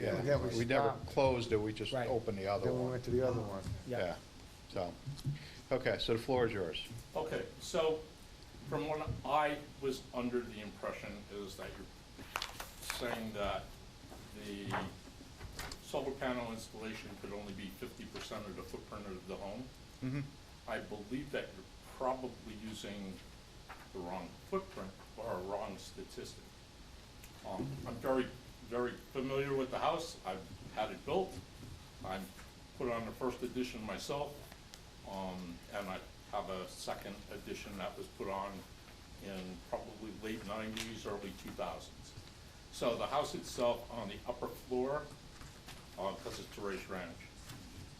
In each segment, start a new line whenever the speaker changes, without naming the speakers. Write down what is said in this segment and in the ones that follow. Yeah,
Again,
we never
stopped.
closed it, we just
Right.
opened the other
Then we
one.
went to the other one.
Yeah.
So, okay, so the floor is yours.
Okay, so from what I was under the impression is that you're saying that the solar panel installation could only be fifty percent of the footprint of the home. Mm-hmm.
Mhm.
I believe that you're probably using the wrong footprint or a wrong statistic. Um, I'm very, very familiar with the house, I've had it built, I've put on the first edition myself, um, and I have a second edition that was put on in probably late nineties, early two thousands. So the house itself on the upper floor, uh, cause it's raised ranch,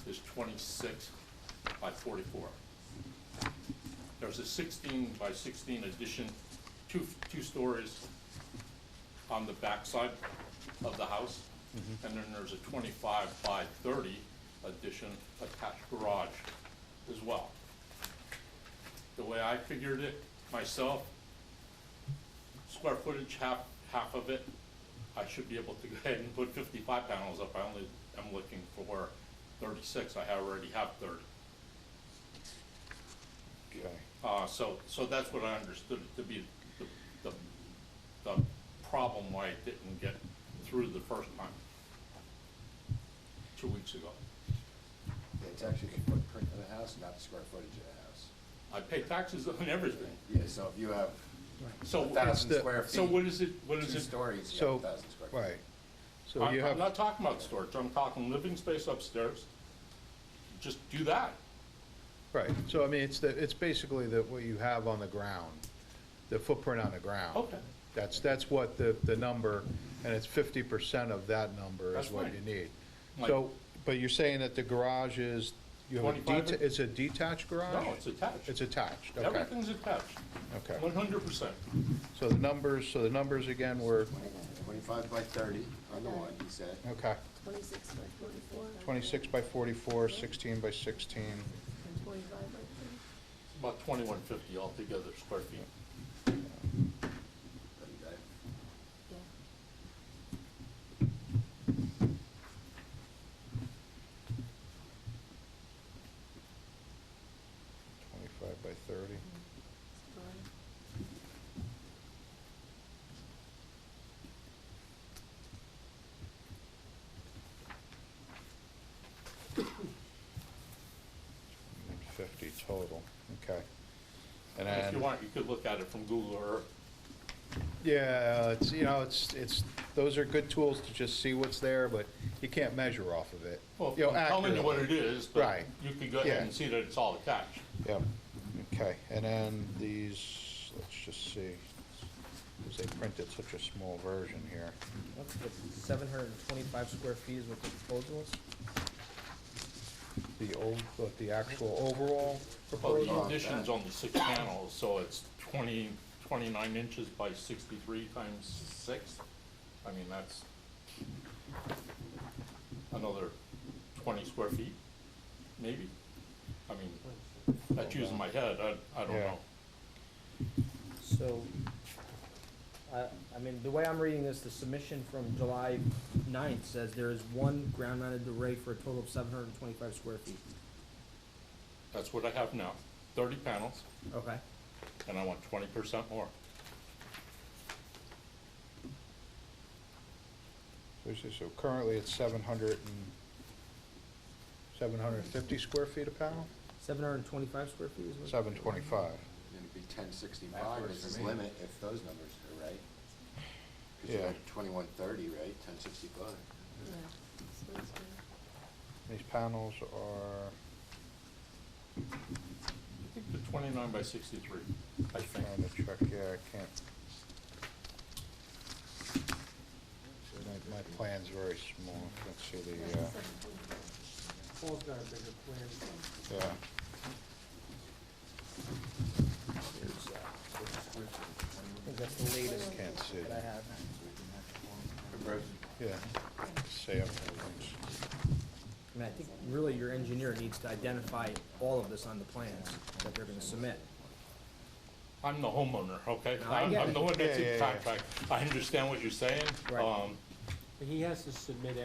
is twenty-six by forty-four there's a sixteen by sixteen addition, two, two stories on the backside of the house. And then there's a twenty-five by thirty addition attached garage as well. The way I figured it myself, square footage, half, half of it, I should be able to go ahead and put fifty-five panels up. I only, am looking for thirty-six. I already have thirty.
Okay.
Uh, so, so that's what I understood it to be the, the, the problem why it didn't get through the first time, two weeks ago.
Yeah, It's actually the footprint of the house, not the square footage of the house.
I pay taxes on everything,
Yeah, so if you have
so.
a thousand
the-
square
So what
feet,
is it, what is
two
it?
stories, you
So,
have a thousand square feet.
right. So
I'm,
you
I'm
have,
not talking about storage, I'm talking living space upstairs. Just do that.
right, so I mean, it's the, it's basically the, what you have on the ground, the footprint on the ground.
Okay.
That's, that's what the, the number, and it's fifty percent of that number is
That's
what
fine.
you need.
Like-
So, but you're saying that the garage is, you have a
25
deta- it's a detached garage?
No, it's attached.
It's attached, okay,
Everything's attached,
okay.
one hundred percent.
So the numbers, so the numbers again were,
Twenty-five by thirty on the one, he said.
okay,
Twenty-six by forty-four.
26 by 44, 16 by 16.
And twenty-five by thirty.
About twenty-one fifty altogether square feet.
Okay.
Yeah.
Twenty-five by thirty.
it's fine.
and Fifty total, okay. And
If you
then,
want, you could look at it from Google Earth.
yeah, it's, you know, it's, it's, those are good tools to just see what's there, but you can't measure off of it.
Well,
You know,
I'm telling you what it
accurately.
is, but
Right.
you could go ahead
Yeah.
and see that it's all attached.
Yep, okay, and then these, let's just see, because they printed such a small version here.
What's the seven hundred and twenty-five square feet is what the proposal is?
The old, but the actual overall
Well,
proposal,
Oh, the addition's only six panels, so it's 20, 29 inches by 63 times six. I mean, that's another 20 square feet, maybe? I mean, that's using my head, I, I don't
Yeah.
know.
So, I, I mean, the way I'm reading this, the submission from July ninth says there is one ground-mounted array for a total of seven hundred and twenty-five square feet.
That's what I have now, 30 panels,
Okay.
and I want 20% more.
Let's see, so currently it's 700 and, 750 square feet a panel?
Seven hundred and twenty-five square feet is what?
725.
Then it'd be ten sixty-five is his limit if those numbers are right. Cause you
Yeah.
had twenty-one thirty, right, ten sixty-five.
Yeah. So it's fine.
These panels are,
I think the 29 by 63, I think.
trying to check, yeah, I can't. My, my plan's very small, let's see the, uh,
Seven twenty-five.
Paul's got a bigger plan.
yeah.
There's, uh, I think that's the latest
Can't see
that I
that.
have.
Yeah, say everything's,
I mean, I think really your engineer needs to identify all of this on the plans that they're gonna submit.
I'm the homeowner, okay?
No, I
I'm,
get
I'm
it.
the one that's
Yeah,
in
yeah, yeah.
contract. I understand what you're saying.
Right.
Um,
But he has to submit